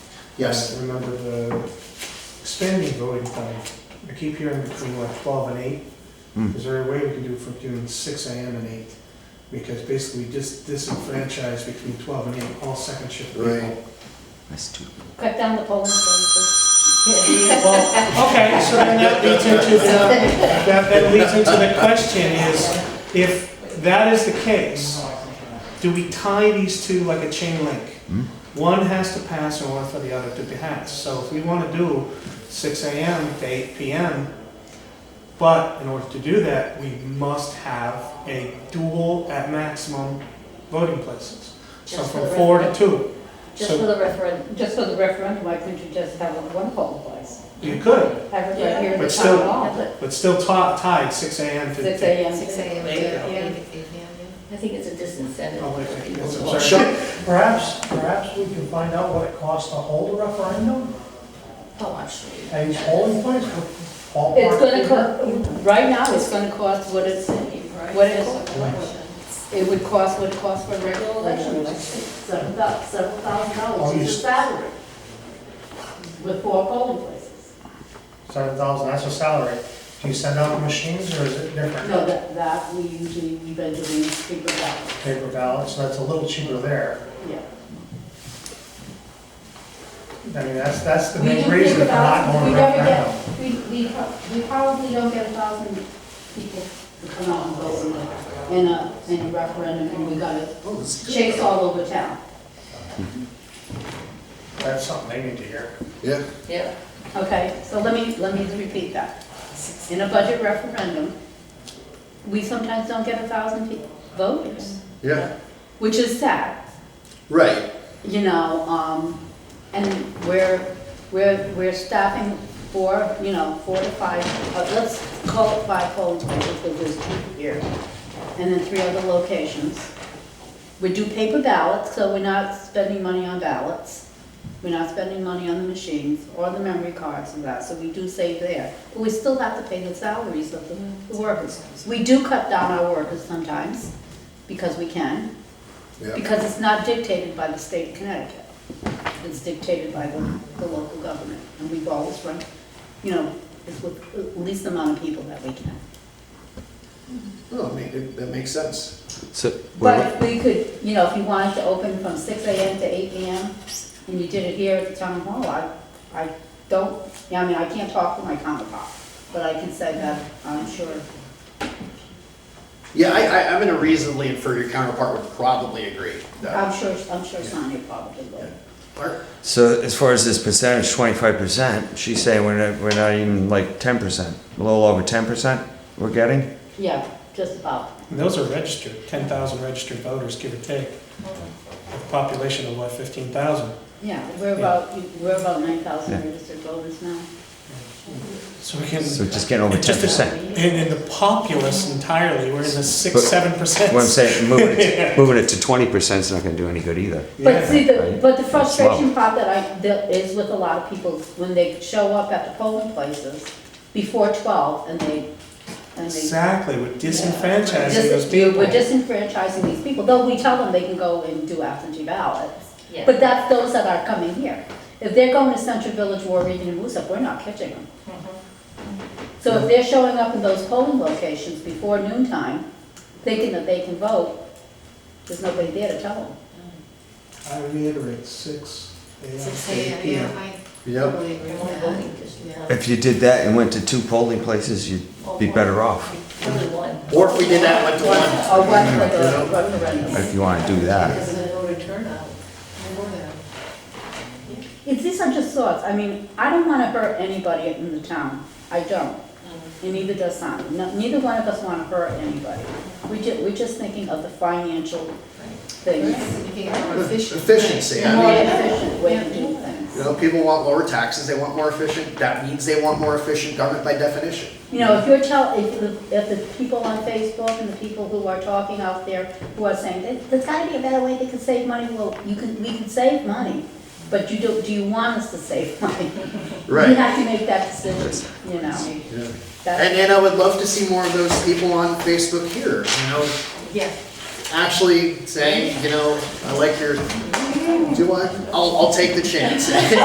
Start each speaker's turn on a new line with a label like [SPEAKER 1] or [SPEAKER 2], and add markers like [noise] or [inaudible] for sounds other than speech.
[SPEAKER 1] Yes.
[SPEAKER 2] I Remember the expanding voting time, I keep hearing between like twelve and eight.
[SPEAKER 3] Hmm.
[SPEAKER 2] Is there a way we can do from doing six AM and eight? Because basically we just disenfranchise between twelve and eight, all second shift people.
[SPEAKER 1] Right.
[SPEAKER 3] That's too.
[SPEAKER 4] Cut down the polling places.
[SPEAKER 2] Well, okay, so then that leads into the, that, that leads into the question is, if that is the case, do we tie these two like a chain link?
[SPEAKER 3] Hmm.
[SPEAKER 2] One has to pass in order for the other to pass. So if we wanna do six AM to eight PM, but in order to do that, we must have a dual at maximum voting places. So
[SPEAKER 4] Just
[SPEAKER 2] from
[SPEAKER 4] for the
[SPEAKER 2] four to
[SPEAKER 4] record.
[SPEAKER 2] two.
[SPEAKER 4] Just for the referendum, just for the referendum, why couldn't you just have one polling place?
[SPEAKER 2] You could,
[SPEAKER 4] Have it right here in
[SPEAKER 2] But
[SPEAKER 4] the
[SPEAKER 2] still-
[SPEAKER 4] town hall.
[SPEAKER 2] but still ti- tied six AM to.
[SPEAKER 4] Six AM.
[SPEAKER 5] Six AM,
[SPEAKER 4] Yeah.
[SPEAKER 5] yeah,
[SPEAKER 4] I think it's a disincentive.
[SPEAKER 2] Oh, wait,
[SPEAKER 4] for
[SPEAKER 2] wait,
[SPEAKER 4] people
[SPEAKER 2] yes,
[SPEAKER 4] to
[SPEAKER 2] I'm
[SPEAKER 4] vote.
[SPEAKER 2] sorry.
[SPEAKER 6] Perhaps, perhaps we can find out what it costs to hold a referendum,
[SPEAKER 5] Oh, I'm sure. you-
[SPEAKER 6] a polling place, what ballpark.
[SPEAKER 4] It's gonna
[SPEAKER 6] figure?
[SPEAKER 4] cost, right now, it's gonna cost what it's, what it, it would cost what it costs for a regular election. like Seven thou, several thousand
[SPEAKER 6] Oh,
[SPEAKER 4] dollars
[SPEAKER 6] you
[SPEAKER 4] is a
[SPEAKER 6] s-
[SPEAKER 4] salary with four polling places.
[SPEAKER 6] Seven thousand, that's a salary. Do you send out machines or is it different?
[SPEAKER 4] No, that, that we usually, we've been doing paper ballots,
[SPEAKER 6] Paper ballots, so that's a little cheaper there.
[SPEAKER 4] yeah.
[SPEAKER 6] I mean, that's, that's the
[SPEAKER 4] We
[SPEAKER 6] main
[SPEAKER 4] do
[SPEAKER 6] reason
[SPEAKER 4] paper
[SPEAKER 6] for not
[SPEAKER 4] ballots,
[SPEAKER 6] going
[SPEAKER 4] we
[SPEAKER 6] to
[SPEAKER 4] never
[SPEAKER 6] referendum.
[SPEAKER 4] get, we, we, pro- we probably don't get a thousand people to come out and vote in a, in a, in a referendum, and we gotta chase all over town.
[SPEAKER 6] That's something they need to hear.
[SPEAKER 1] Yeah,
[SPEAKER 5] Yeah.
[SPEAKER 4] Okay, so let me, let me repeat that. In a budget referendum, we sometimes don't get a thousand pe- voters,
[SPEAKER 1] yeah,
[SPEAKER 4] which is sad,
[SPEAKER 1] right,
[SPEAKER 4] you know, um, and we're, we're, we're staffing four, you know, four to five, uh, let's call it five polling places, because there's two here, and then three other locations. We do paper ballots, so we're not spending money on ballots. We're not spending money on the machines or the memory cards and that, so we do save there. But we still have to pay the salaries of the the workers. We do cut down our workers sometimes, because we can,
[SPEAKER 1] yeah.
[SPEAKER 4] because it's not dictated by the state of Connecticut. It's dictated by the, the local government, and we've always run, you know, it's with the least amount of people that we can.
[SPEAKER 7] Oh,
[SPEAKER 1] No, I mean, it- that makes sense.
[SPEAKER 3] So,
[SPEAKER 4] But
[SPEAKER 3] wait,
[SPEAKER 4] if we could, you know, if you wanted to open from six AM to eight PM, and you did it here at the town hall, I, I don't, yeah, I mean, I can't talk for my counterpart, but I can say that I'm sure.
[SPEAKER 7] Yeah, I, I, I'm gonna reasonably infer your counterpart would probably agree.
[SPEAKER 4] I'm sure, I'm sure Sonia probably would.
[SPEAKER 7] Mark?
[SPEAKER 3] so as far as this percentage, twenty-five percent, she's saying we're not, we're not even like ten percent, a little over ten percent we're getting?
[SPEAKER 4] Yeah, just about.
[SPEAKER 2] And those are registered, ten thousand registered voters, give or take. A population of what, fifteen thousand?
[SPEAKER 4] Yeah, we're about, we're about nine thousand registered voters now.
[SPEAKER 2] So we can,
[SPEAKER 3] So just getting over ten percent. [laughs]
[SPEAKER 2] and in the populace entirely, we're in the six,
[SPEAKER 3] But-
[SPEAKER 2] seven percent.
[SPEAKER 3] What I'm saying, moving it, moving it to twenty percent's not gonna do any good either.
[SPEAKER 4] But see, the,
[SPEAKER 3] Right.
[SPEAKER 4] but the
[SPEAKER 3] Slow.
[SPEAKER 4] frustration part that I, that is with a lot of people, when they show up at the polling places before twelve and they, and they.
[SPEAKER 2] Exactly, we're disenfranchising those
[SPEAKER 4] Dis-
[SPEAKER 2] people.
[SPEAKER 4] We're disenfranchising these people, though we tell them they can go and do absentee ballots.
[SPEAKER 5] Yeah.
[SPEAKER 4] But that's those that are coming here. If they're going to Central Village, War Region, and Woosop, we're not catching them. So if they're showing up in those polling locations before noon time, thinking that they can vote, there's nobody there to tell them.
[SPEAKER 2] I reiterate, six AM
[SPEAKER 5] Six
[SPEAKER 2] to eight
[SPEAKER 5] AM, yeah,
[SPEAKER 2] PM.
[SPEAKER 5] I
[SPEAKER 1] Yep.
[SPEAKER 5] totally agree
[SPEAKER 4] Only
[SPEAKER 5] with
[SPEAKER 4] voting
[SPEAKER 5] that.
[SPEAKER 3] If you did that and went to two polling places, you'd be better off,
[SPEAKER 7] Or if we did that one to one,
[SPEAKER 4] Or one for the referendum.
[SPEAKER 3] if you wanna do that.
[SPEAKER 5] Because of the voter turnout, more than.
[SPEAKER 4] It's, these are just thoughts, I mean, I don't wanna hurt anybody in the town, I don't, and neither does Sonia, No- neither one of us wanna hurt anybody. We ju, we're just thinking of the financial things,
[SPEAKER 5] If you have more efficient.
[SPEAKER 7] efficiency,
[SPEAKER 4] a
[SPEAKER 7] I
[SPEAKER 4] more
[SPEAKER 7] mean,
[SPEAKER 4] efficient way to do things.
[SPEAKER 7] you know, people want lower taxes, they want more efficient, that means they want more efficient government by definition.
[SPEAKER 4] You know, if you're tell, if the, if the people on Facebook and the people who are talking out there who are saying, "There- there's gotta be a better way they can save money, well, you can, we can save money, but you do, do you want us to save money? We
[SPEAKER 7] Right.
[SPEAKER 4] have to make that decision, you know?
[SPEAKER 7] Yeah. And,
[SPEAKER 4] That's-
[SPEAKER 7] and I would love to see more of those people on Facebook here, you know,
[SPEAKER 5] Yeah.
[SPEAKER 7] actually saying, you know, I like your, do I? I'll, I'll take the chance. [laughs]